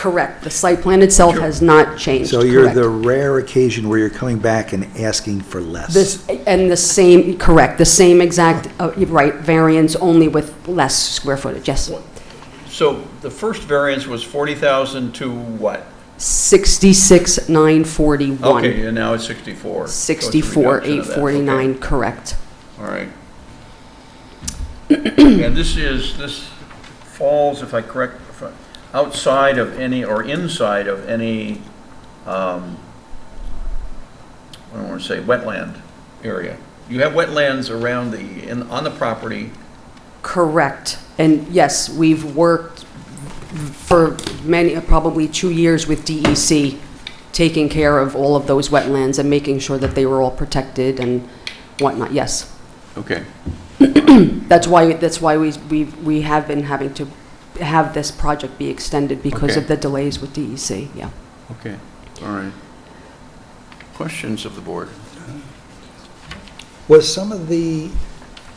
Correct. The site plan itself has not changed. So you're Correct. the rare occasion where you're coming back and asking for less. This, and the same, correct, the same exact, uh, right, variance, only with less square footage, yes. So the first variance was 40,000 to what? 66,941. Okay, and now it's 64. So it's a reduction of that. Okay. 64,849, correct. All right. And this is, this falls, if I correct, if I- outside of any, or inside of any, um, I don't want to say wetland area. You have wetlands around the, in, on the property. Correct. And yes, we've worked for many, probably two years with DEC, taking care of all of those wetlands and making sure that they were all protected and whatnot, yes. Okay. That's why, that's why we, we, we have been having to have this project be extended because of Okay. the delays with DEC, yeah. Okay, all right. Questions of the board? Was some of the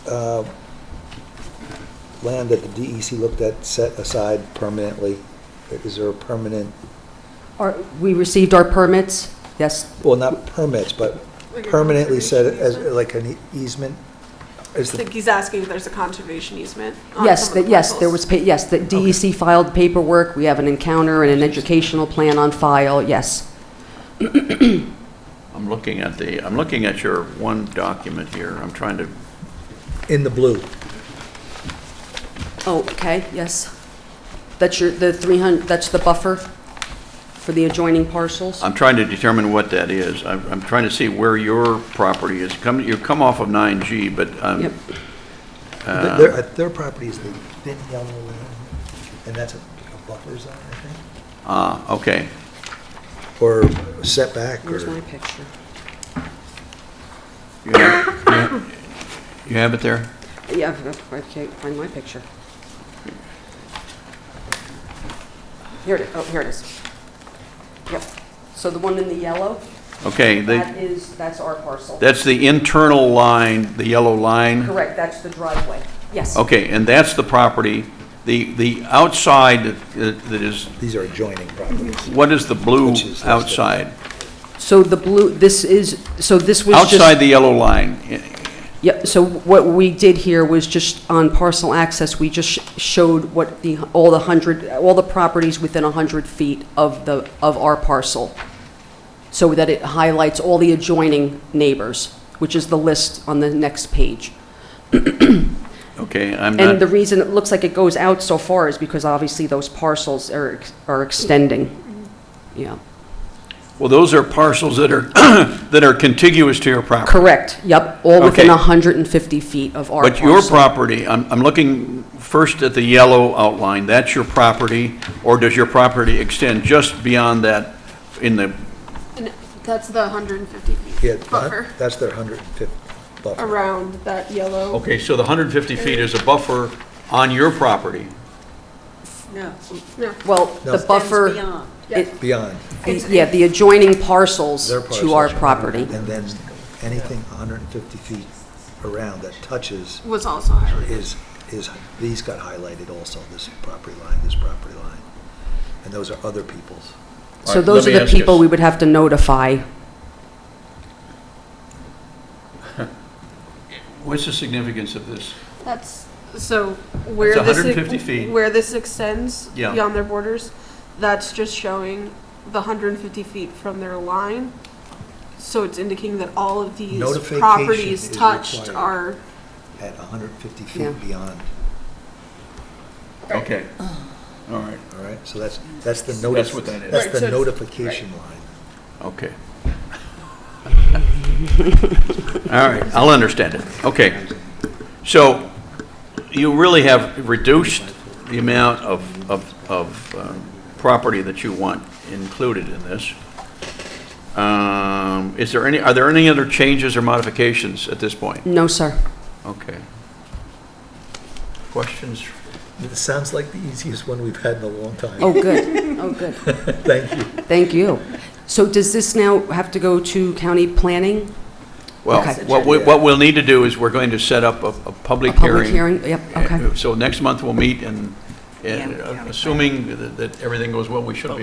uh, land that the DEC looked at set aside permanently? Is there a permanent, Our, we received our permits, yes, well, not permits, but permanently set as, like an e-, easement? Is I the think he's asking if there's a conservation easement. on yes, some of that, the yes, there parcels. was, pa- yes, that DEC filed paperwork, we have an encounter and an educational plan on file, yes. I'm looking at the, I'm looking at your one document here. I'm trying to, in the blue? Oh, okay, yes. That's your, the 300, that's the buffer for the adjoining parcels? I'm trying to determine what that is. I'm, I'm trying to see where your property is. Come, you come off of 9G, but, um, Yep. Th- Their, uh, their property is the thin yellow land, and that's a a buffer zone, I think, ah, okay. or setback, Here's my or, picture. You have- You have it there? Yeah, I can't find my picture. Here it is, oh, here it is. Yep, so the one in the yellow, Okay, that the, is, that's our parcel. that's the internal line, the yellow line? Correct, that's the driveway, yes. Okay, and that's the property. The, the outside that that is, these are adjoining properties. what is the blue Which is- outside? So the blue, this is, so this was just... Outside the yellow line, Yep, so what we did here was just on parcel access, we just sh- showed what the, all the 100, all the properties within 100 feet of the, of our parcel, so that it highlights all the adjoining neighbors, which is the list on the next page. Okay, I'm And the not, reason it looks like it goes out so far is because obviously those parcels are, ex- are extending. Yeah, well, those are parcels that are, that are contiguous to your property. correct, yep, all within Okay. 150 feet of our But parcel. your property, I'm, I'm looking first at the yellow outline, that's your property, or does your property extend just beyond that in the, And that's the 150 Yeah, feet buffer that's their 105th buffer. around that Oh. yellow. okay, so the 150 feet is a buffer on your property? No, No, Well, No. the Extends buffer... beyond. it- Beyond The- Yeah, the adjoining parcels their to our parcels. property. And then anything 150 feet around that touches was also highlighted. is, is, these got highlighted also, this property line, this property line. And those are other people's. All So right, those let are me the ask you people s- we would have to notify. What's the significance of this? That's, so where That's this. 150 feet. Where this extends Yeah. beyond their borders, that's just showing the 150 feet from their line. So it's indicating that all of these Notification properties is touched required. are, At 150 Yeah. feet beyond, Okay, all right, all right? So that's, that's the That's notice. what that is. That's Right, the so it's- notification line. okay. All right, I'll understand it, okay. So you really have reduced the amount of, of, of um, property that you want included in this. Um, Is there any, are there any other changes or modifications at this point? No, sir. Okay. Questions? It sounds like the easiest one we've had in a long time. Oh, good. Oh, good. Thank you. Thank you. So does this now have to go to county planning? Well, Okay. what, we- what we'll need to do is we're going to set up a, a A public hearing. public hearing? Yep, okay. Uh, So next month we'll meet and And, uh, Assuming that- that everything goes well, we should be